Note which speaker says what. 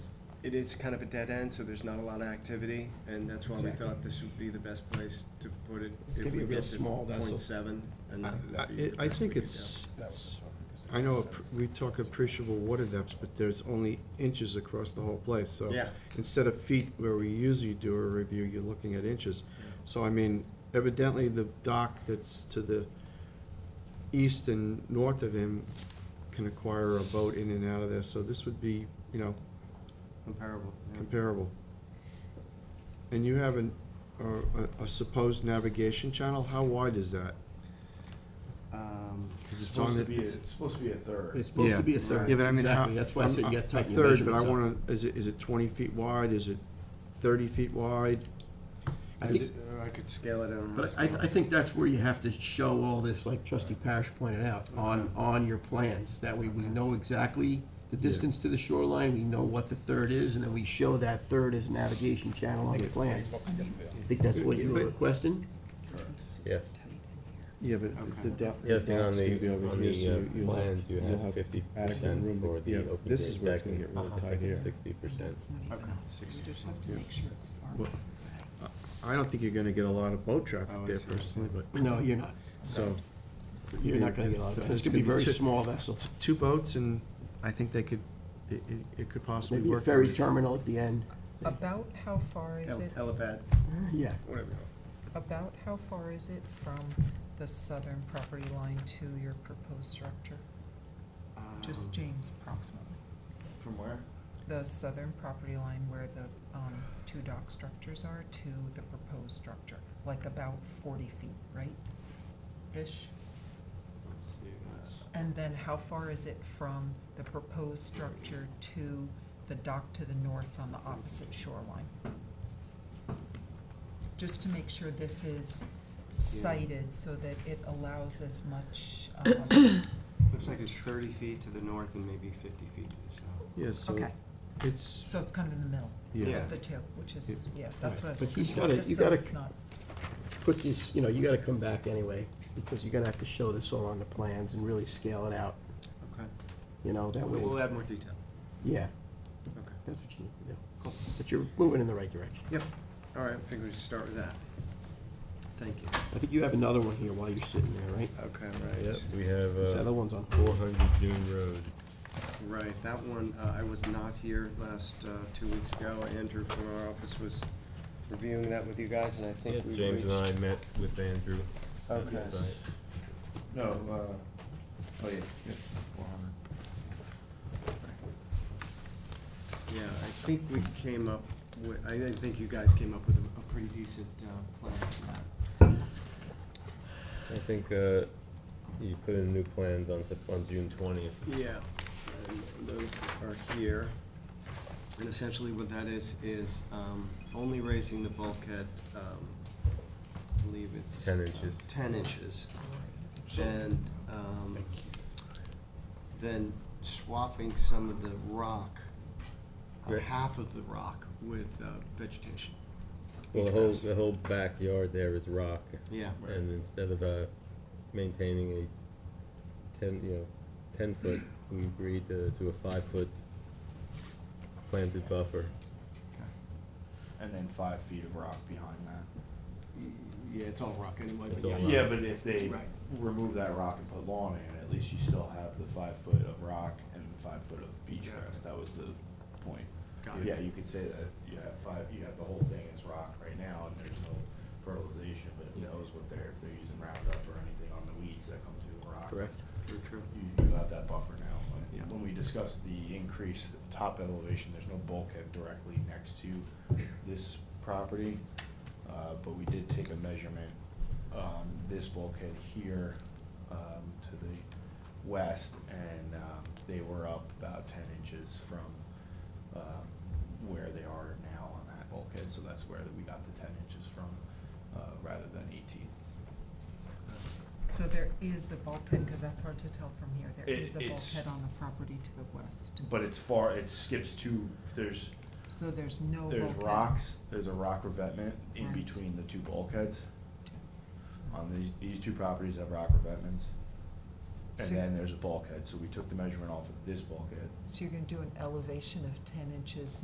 Speaker 1: it is kind of a dead end, so there's not a lot of activity, and that's why we
Speaker 2: Exactly.
Speaker 1: thought this would be the best place to put it.
Speaker 2: It's
Speaker 1: if
Speaker 2: gonna be
Speaker 1: we
Speaker 2: a real
Speaker 1: get to
Speaker 2: small vessel.
Speaker 1: 0.7, and
Speaker 3: I-
Speaker 1: that would be the
Speaker 3: I I
Speaker 1: best we
Speaker 3: think
Speaker 1: could
Speaker 3: it's,
Speaker 2: That
Speaker 3: it's-
Speaker 2: was-
Speaker 3: I know appr- we talk appreciable water depths, but there's only inches across the whole place, so.
Speaker 1: Yeah.
Speaker 3: Instead of feet where we usually do a review, you're looking at inches. So I mean, evidently the dock that's to the east and north of him can acquire a boat in and out of there, so this would be, you know,
Speaker 1: do. Comparable. yeah.
Speaker 3: comparable. And you have an, or a- a supposed navigation channel, how wide is that?
Speaker 1: Um,
Speaker 3: 'Cause it's on
Speaker 4: supposed to
Speaker 3: the-
Speaker 4: be, it's supposed to be a third.
Speaker 2: It's supposed to be a
Speaker 1: Yeah.
Speaker 2: third.
Speaker 3: Yeah, but I mean, how-
Speaker 2: Exactly, that's why I said you
Speaker 3: I'm-
Speaker 2: gotta tighten
Speaker 3: a
Speaker 2: your
Speaker 3: third, but I
Speaker 2: measurements up.
Speaker 3: wanna, is it, is it twenty feet wide, is it thirty feet wide?
Speaker 2: I
Speaker 1: is
Speaker 2: think-
Speaker 1: it- uh, I could scale it on.
Speaker 2: But I, I think that's where you have to show all this, like trustee Parish pointed out, on, on your plans. That way we know exactly the distance to the shoreline, we know what the third is, and then we show that third as navigation channel on the plan. I think that's what you were requesting?
Speaker 5: Yes,
Speaker 3: Yeah, but it's- the depth.
Speaker 5: the other thing on
Speaker 3: it's gonna be
Speaker 5: the,
Speaker 3: over
Speaker 5: on
Speaker 3: here, so
Speaker 5: the uh,
Speaker 3: you'll have-
Speaker 5: plans, you
Speaker 3: you'll
Speaker 5: have
Speaker 3: have
Speaker 5: fifty
Speaker 3: adequate room to-
Speaker 5: percent for
Speaker 3: yeah,
Speaker 5: the open
Speaker 3: this is
Speaker 5: grade Uh-huh.
Speaker 3: where it's
Speaker 5: deck
Speaker 3: gonna get
Speaker 5: and
Speaker 3: really
Speaker 5: I
Speaker 3: tight
Speaker 5: think it's
Speaker 3: here.
Speaker 5: sixty percent.
Speaker 6: You just have to make sure it's far
Speaker 3: Well,
Speaker 6: enough
Speaker 3: I don't think you're gonna get a lot of boat traffic
Speaker 1: Oh, I
Speaker 3: there
Speaker 1: see.
Speaker 3: personally, but,
Speaker 2: No, you're not.
Speaker 3: so.
Speaker 2: You're not gonna get a lot of, it's gonna be very
Speaker 3: two-
Speaker 2: small vessels.
Speaker 3: Two boats and I think they could, it, it- it could possibly
Speaker 2: Maybe
Speaker 3: work.
Speaker 2: a ferry terminal at the end.
Speaker 6: About how far is
Speaker 1: Hel-
Speaker 6: it,
Speaker 1: Helipad,
Speaker 2: Yeah.
Speaker 1: whatever.
Speaker 6: about how far is it from the southern property line to your proposed structure? Just
Speaker 1: Um,
Speaker 6: James approximately.
Speaker 4: From where?
Speaker 6: The southern property line where the, um, two dock structures are to the proposed structure, like about forty feet, right? Ish.
Speaker 1: let's see, that's-
Speaker 6: And then how far is it from the proposed structure to the dock to the north on the opposite shoreline? Just to make sure this is cited so that it allows as much, um,
Speaker 1: Looks like it's thirty feet to the north and maybe fifty feet to the south.
Speaker 3: Yeah, so
Speaker 6: okay,
Speaker 3: it's,
Speaker 6: so it's kind of in the middle
Speaker 3: yeah,
Speaker 1: Yeah.
Speaker 6: of the two, which is, yeah, that's what I was
Speaker 2: But
Speaker 6: looking
Speaker 2: he's
Speaker 6: for,
Speaker 2: gotta- you
Speaker 6: just so
Speaker 2: gotta-
Speaker 6: it's not,
Speaker 2: put these, you know, you gotta come back anyway, because you're gonna have to show this all on the plans and really scale it out,
Speaker 1: Okay.
Speaker 2: you know, that
Speaker 1: We'll
Speaker 2: way,
Speaker 1: add more detail.
Speaker 2: yeah,
Speaker 1: Okay.
Speaker 2: that's what you need to do.
Speaker 1: Cool.
Speaker 2: But you're moving in the right direction.
Speaker 1: Yep. All right, I figured we should start with that. Thank you.
Speaker 2: I think you have another one here while you're sitting there, right?
Speaker 1: Okay, right.
Speaker 5: Yep, we have,
Speaker 2: This
Speaker 5: uh,
Speaker 2: other one's on.
Speaker 5: four hundred Dune Road.
Speaker 1: Right, that one, uh, I was not here last, uh, two weeks ago. Andrew from our office was reviewing that with you guys, and I think we
Speaker 5: James and
Speaker 1: reached-
Speaker 5: I met with Andrew. at the
Speaker 1: Okay.
Speaker 5: site.
Speaker 4: No, uh, oh yeah, four hundred.
Speaker 1: Yeah, I think we came up with, I I think you guys came up with a a pretty decent, uh, plan for that.
Speaker 5: I think, uh, you put in new plans on, Sep- on June twentieth.
Speaker 1: Yeah, and those are here. And essentially what that is, is um, only raising the bulkhead, um, I believe it's.
Speaker 5: 10 inches.
Speaker 1: uh, Ten inches. And um, then swapping some of the rock, uh,
Speaker 5: Right.
Speaker 1: half of the rock with uh, vegetation.
Speaker 5: Well, the whole, the whole backyard there is rock,
Speaker 1: Yeah,
Speaker 5: and instead of, uh, maintaining a ten, you know, ten foot, we agreed to, to a five foot planted buffer.
Speaker 4: And then five feet of rock behind that.
Speaker 1: yeah, it's all rock anyway,
Speaker 5: It's
Speaker 1: but
Speaker 5: all
Speaker 1: yeah.
Speaker 5: rock.
Speaker 4: Yeah, but if they
Speaker 1: Right.
Speaker 4: remove that rock and put lawn in, at least you still have the five foot of rock and the five foot of beach
Speaker 1: Yeah.
Speaker 4: grass, that was the point.
Speaker 1: Got it.
Speaker 4: Yeah, you could say that you have five, you have the whole thing is rock right now, and there's no fertilization, but who knows what they're, if they're using Roundup or anything on the weeds that come through the rock.
Speaker 1: True, true.
Speaker 4: You, you have that buffer now. When-
Speaker 1: Yeah.
Speaker 4: When we discuss the increase at the top elevation, there's no bulkhead directly next to this property. Uh, but we did take a measurement, um, this bulkhead here, um, to the west, and, um, they were up about ten inches from, um, where they are now on that bulkhead, so that's where we got the ten inches from, uh, rather than eighteen.
Speaker 6: so there is a bulkhead, because that's hard to tell from here, there
Speaker 4: It-
Speaker 6: is a
Speaker 4: it's-
Speaker 6: bulkhead on the property to the west.
Speaker 4: But it's far, it skips two, there's,
Speaker 6: So there's no bulkhead.
Speaker 4: There's rocks, there's a rock revetment in
Speaker 6: Right.
Speaker 4: between the two bulkheads. On these, these two properties have rock revetments.
Speaker 6: So-
Speaker 4: And then there's a bulkhead, so we took the measurement off of this bulkhead.
Speaker 6: So you're gonna do an elevation of ten inches